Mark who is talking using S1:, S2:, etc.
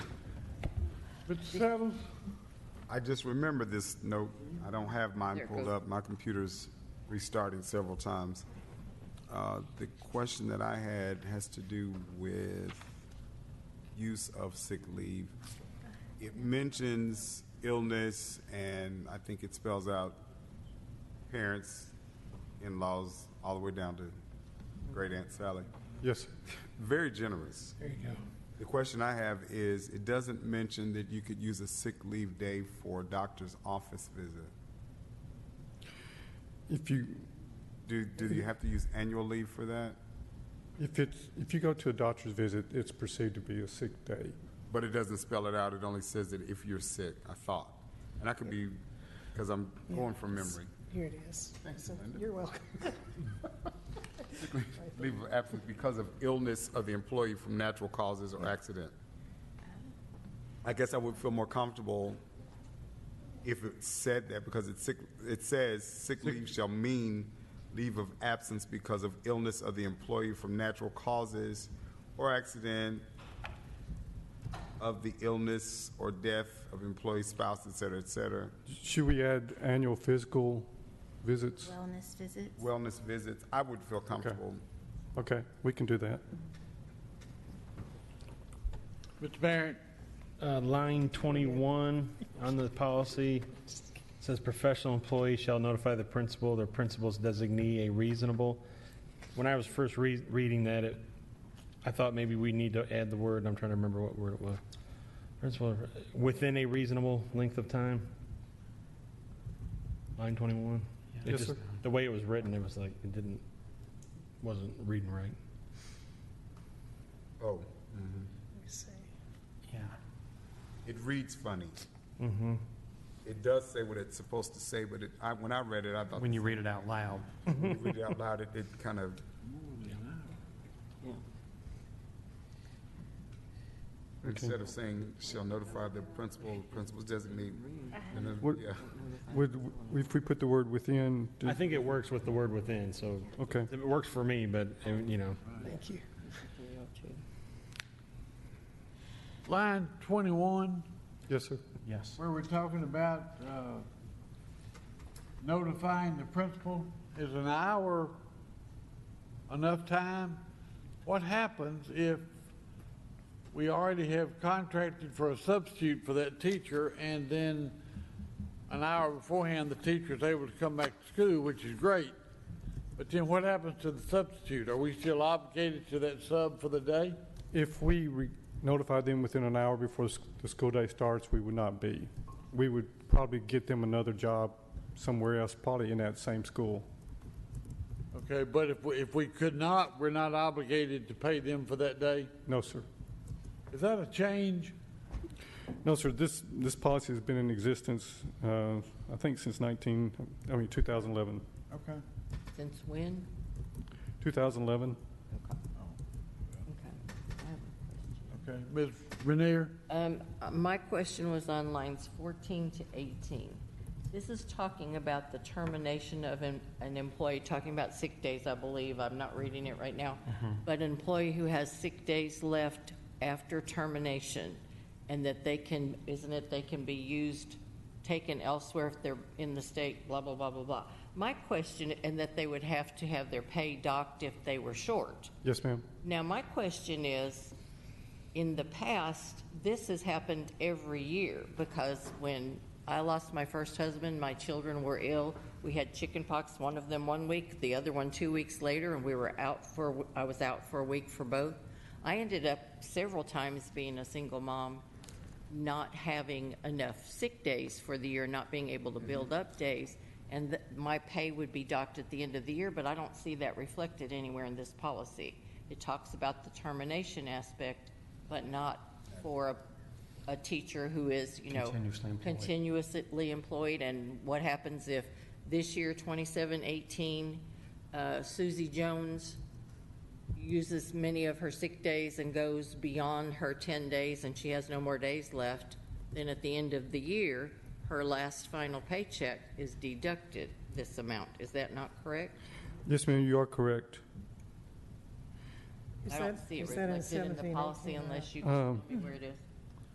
S1: Mr. Saddles?
S2: I just remember this note. I don't have mine
S3: There it
S2: pulled
S3: goes.
S2: up. My computer's restarting several times. Uh, The question that I had has to do with use of sick leave. It mentions illness, and I think it spells out parents, in-laws, all the way down to great Aunt Sally.
S1: Yes, sir.
S2: Very generous.
S1: There you go.
S2: The question I have is, it doesn't mention that you could use a sick leave day for a doctor's office visit.
S1: If you,
S2: Do, do you have to use annual leave for that?
S1: if it's, if you go to a doctor's visit, it's perceived to be a sick day.
S2: But it doesn't spell it out, it only says that if you're sick, I thought. And I could be, because I'm going from memory.
S4: Here it is. So,
S2: Linda.
S4: You're welcome.
S2: Leave of absence because of illness of the employee from natural causes or accident. I guess I would feel more comfortable if it said that because it's sick, it says sick leave shall mean leave of absence because of illness of the employee from natural causes or accident of the illness or death of employee spouse, et cetera, et cetera.
S1: Should we add annual physical visits?
S5: Wellness visits?
S2: Wellness visits, I would feel comfortable.
S1: Okay, we can do that.
S6: Mr. Barrett, uh, line 21 on the policy says professional employees shall notify the principal, their principal's designee, a reasonable. When I was first re- reading that, it, I thought maybe we need to add the word, and I'm trying to remember what word it was. Principal, within a reasonable length of time? Line 21? It
S1: Yes,
S6: just-
S1: sir.
S6: The way it was written, it was like, it didn't, wasn't reading right.
S2: Oh,
S4: Let me see.
S2: it reads funny.
S6: Mm-hmm.
S2: It does say what it's supposed to say, but it, I, when I read it, I thought.
S7: when you read it out loud.
S2: When you read it out loud, it, it kind of, instead of saying, shall notify the principal, principal's designate. and then-
S1: What-
S2: yeah.
S1: Would, if we put the word within, do-
S6: I think it works with the word within, so.
S1: Okay.
S6: It works for me, but, uh, you know,
S4: Thank you.
S7: Line 21,
S1: yes, sir.
S7: yes.
S8: where we're talking about uh, notifying the principal, is an hour enough time? What happens if we already have contracted for a substitute for that teacher, and then an hour beforehand, the teacher is able to come back to school, which is great, but then what happens to the substitute? Are we still obligated to that sub for the day?
S1: If we re- notify them within an hour before the s- the school day starts, we would not be. We would probably get them another job somewhere else, probably in that same school.
S8: Okay, but if, we- if we could not, we're not obligated to pay them for that day?
S1: No, sir.
S8: Is that a change?
S1: No, sir, this, this policy has been in existence, uh, I think since 19, I mean, 2011.
S8: Okay.
S3: Since when?
S1: 2011?
S8: Okay, Ms. Renier?
S3: Um, uh, my question was on lines fourteen to eighteen. This is talking about the termination of an, an employee, talking about sick days, I believe. I'm not reading it right now. But an employee who has sick days left after termination and that they can, isn't it, they can be used, taken elsewhere if they're in the state, blah, blah, blah, blah, blah. My question, and that they would have to have their pay docked if they were short.
S1: Yes, ma'am.
S3: Now, my question is, in the past, this has happened every year because when I lost my first husband, my children were ill. We had chicken pox, one of them one week, the other one two weeks later, and we were out for, I was out for a week for both. I ended up several times being a single mom, not having enough sick days for the year, not being able to build
S7: Mm-hmm.
S3: up days, and th- my pay would be docked at the end of the year, but I don't see that reflected anywhere in this policy. It talks about the termination aspect, but not for a, a teacher who is, you know,
S7: Continuously employed.
S3: continuously employed, and what happens if this year, 2718, uh, Susie Jones uses many of her sick days and goes beyond her 10 days and she has no more days left, then at the end of the year, her last final paycheck is deducted this amount. Is that not correct?
S1: Yes, ma'am, you are correct.
S4: Is
S3: I don't
S4: that-
S3: see it
S4: is that in
S3: reflected in the
S4: 17,
S3: policy
S4: 18?
S3: unless you
S1: Um,
S3: tell me where it is.